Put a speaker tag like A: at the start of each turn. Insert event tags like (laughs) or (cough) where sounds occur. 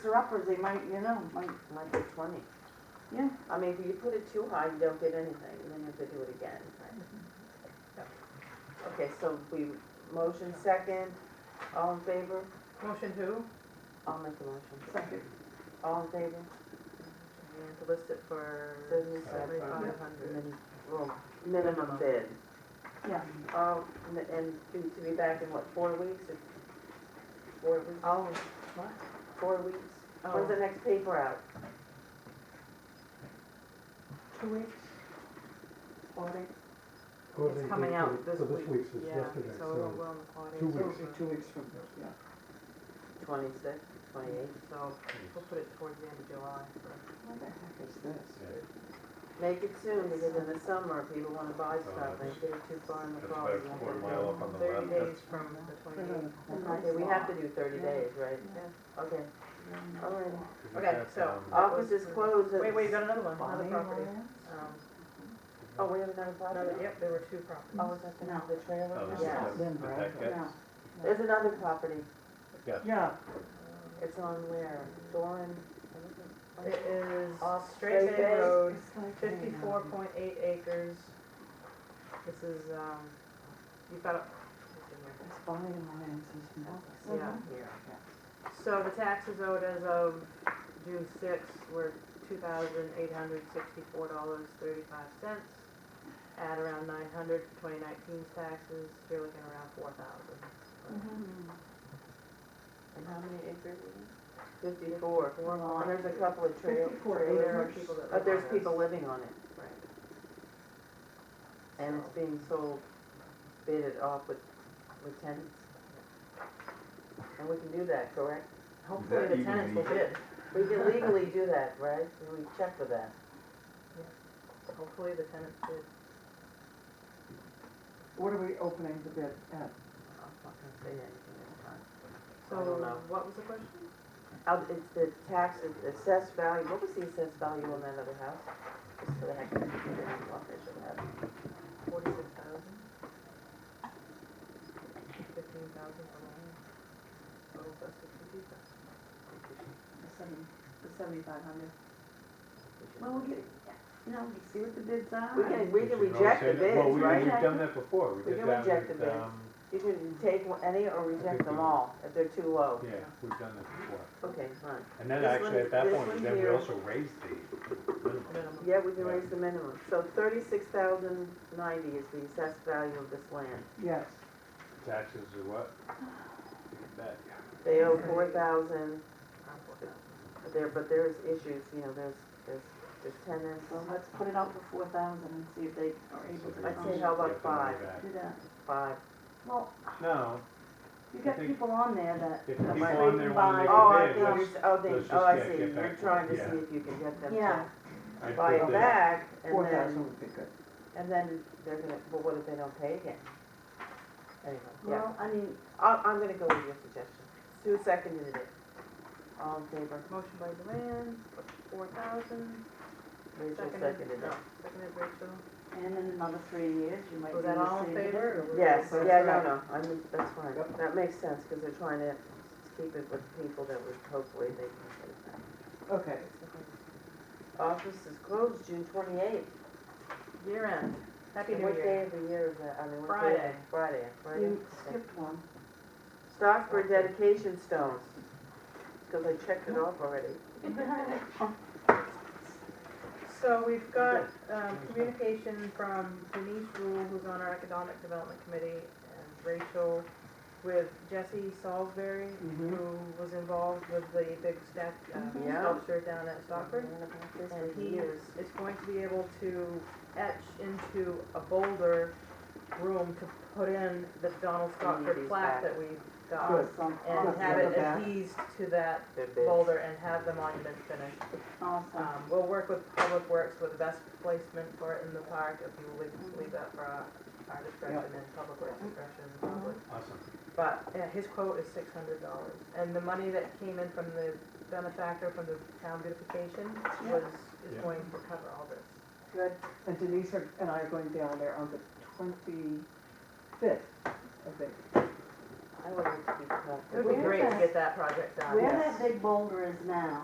A: her uppers, they might, you know, might,
B: might be twenty.
A: Yeah.
B: I mean, if you put it too high, you don't get anything, and then you have to do it again, right? Okay, so we, motion second, all in favor?
C: Motion who?
B: I'll make the motion.
A: second,
B: All in favor?
C: And to list it for
B: Seventy-five
C: seventy-five hundred.
B: hundred. Well, minimum bid.
A: yeah.
B: Um, and- and to, to be back in what, four weeks? If- Four weeks,
C: Oh, what?
B: four weeks? When's the next paper out?
C: Two weeks? Four days?
D: Well,
C: It's
D: they-
C: coming
D: they-
C: out
D: they-
C: this
D: Well, this
C: week.
D: week's was
C: Yeah,
D: yesterday,
C: so it'll
D: so
C: go on the four days.
D: two
C: So-
D: weeks.
E: Two weeks from, yeah.
B: Twenty-six, twenty-eight?
C: So we'll put it towards the end of July. for-
B: What the heck is
E: Yeah,
B: this? Make it soon, because in the summer, people wanna buy stuff, and if it's too far in the
E: Uh, That's
B: fall, you
E: about a
B: won't
E: quarter
B: get it
E: mile
B: done.
E: up on the
C: Thirty
E: left.
C: days
E: That's-
C: from the twenty-eighth.
B: Okay, we have to do thirty
C: Yeah.
B: days, right?
C: Yeah.
B: Okay, all
A: Oh,
B: right.
E: Isn't
C: Okay,
E: that,
C: so,
E: um,
B: Office is closed. at-
C: Wait, wait, you got another one, another property. Um,
B: Oh, we have another
C: another,
B: property?
C: yep, there were two properties.
B: Oh, is that the,
A: No.
B: the trailer?
E: Oh, this is-
B: Yeah.
A: Yeah.
E: that's- but that
A: Yeah,
E: gets-
B: There's another property,
E: yeah.
A: yeah,
B: it's on where, Doran?
C: It is
B: Off
C: Straight
B: Straight
C: Bay
B: Bay.
C: Road, fifty-four point eight acres. This is, um, you've got, a- what's in there?
A: Uh-huh.
C: yeah.
B: Here.
C: So the taxes owed as of June sixth were two thousand eight hundred sixty-four dollars thirty-five cents. Add around nine hundred to twenty nineteen's taxes, you're looking around four thousand.
B: Mm-hmm.
A: Mm-hmm.
B: And how many acres is it? Fifty-four. And there's a couple of trail,
A: 54
B: trailers,
A: acres.
B: but there's people living on it. And it's being sold, bidded off with, with tenants. And we can do that, correct?
C: Hopefully the
E: even
C: tenants will
E: legal?
C: bid,
B: We can legally do that, right? We check with that.
C: hopefully the tenants bid.
A: What are we opening the bid at?
B: I'm not gonna say anything this
A: Oh,
B: time.
C: So
B: I don't know.
C: what was the question?
B: Uh, it's the tax, the assessed value, what was the assessed value on that other house? Just for the heck of it, I didn't know if I should have.
C: Forty-six thousand? Fifteen thousand for land? Total cost of fifty thousand.
A: The seventy-five hundred.
B: We should
A: Well,
B: have.
A: we get, you know, we see what the bids are.
B: We can, we
E: You
B: can
E: should
B: reject the
E: always say that-
B: bids,
E: Well, we-
B: right?
E: we've done that before. We
B: We
E: did
B: can
E: that
B: reject
E: with,
B: the bids.
E: um,
B: You can take one- any or reject
E: think
B: them
E: we-
B: all if they're too low.
E: Yeah, we've done that before.
B: Okay, fine.
E: And then
B: This one-
E: actually, at that
B: this
E: point,
B: one
E: then we
B: here-
E: also raised the minimum.
C: Minimum.
B: Yeah, we can
E: Yeah.
B: raise the minimum. So thirty-six thousand ninety is the assessed value of this land.
A: Yes.
E: Taxes are what? Look at That,
B: They owe four thousand,
C: Around 4,000.
B: there, but there's issues, you know, there's, there's, there's tenants.
A: So let's put it out for four thousand and see if they are
E: So
A: able to.
E: they-
B: I'd say
E: they
B: how about
E: have to pay
B: five?
E: back.
A: Do that.
B: Five.
A: Well,
E: No,
A: you
E: I
A: got
E: think-
A: people on there that.
E: if
A: that
E: people
A: might
E: on there
A: buy-
E: wanna make
B: Oh,
E: a
B: I
E: bid,
B: think
E: let's-
B: you're, oh,
E: let's
B: they,
E: just
B: oh, I
E: get-
B: see.
E: get
B: You're
E: back to
B: trying to
E: it, yeah.
B: see if you can get them
A: Yeah.
B: to
E: I
B: buy
E: think
B: it
E: that-
B: back and
A: Four
B: then,
A: thousand would be good.
B: and then they're gonna, well, what if they don't pay again? Anyway, yeah.
A: Well, I mean,
B: I, I'm gonna go with your suggestion. Sue seconded it. All in favor?
C: Motion by Joanne, four thousand.
B: Rachel seconded it.
C: Seconded Rachel.
A: and in another three years, you might be
C: Was
A: in
C: that all
A: the
C: in
A: same.
C: favor? or-
B: Yes,
A: That's
B: yeah, no,
A: right.
B: no, I mean, that's fine.
A: Yep.
B: That makes sense, because they're trying to keep it with people that would hopefully they can get it back.
A: Okay.
B: Office is closed June twenty-eighth.
C: Year end. Happy New
B: What day
C: Year.
B: of the year is that? I mean, what day?
C: Friday.
B: Friday, Friday.
A: You skipped one.
B: Stockford dedication stones, because I checked it off already.
C: (laughs) So we've got, um, communication from Denise Rule, who's on our Economic Development Committee, and Rachel with Jesse Salisbury,
B: Mhm.
C: who was involved with the big stack, um,
B: Yeah. Mm-hmm.
C: sculpture down at Stockford.
B: Been about this
C: And
B: for
C: he
B: years.
C: is going to be able to etch into a boulder room to put in the Donald Stockford
B: Community's
C: plaque
B: back.
C: that we've got.
A: Good. Some-
C: And
A: awesome.
C: have it
A: Yeah.
C: adhesed to that
B: They're big.
C: boulder and have the monument finished.
A: Awesome.
C: Um, we'll work with Public Works for the best placement for it in the park, if you would leave that for our our discretion and Public Works discretion, probably.
E: Awesome.
C: But uh, his quote is six hundred dollars, and the money that came in from the benefactor from the town beautification
A: Yeah.
C: was, is
E: Yeah.
C: going to cover all this.
A: Good.
F: And Denise are- and I are going down there on the twenty-fifth, I think.
G: I would like to be.
B: It would be
A: Where
B: great to
A: the-
B: get that project done.
A: Where
B: yes.
A: that big boulder is now,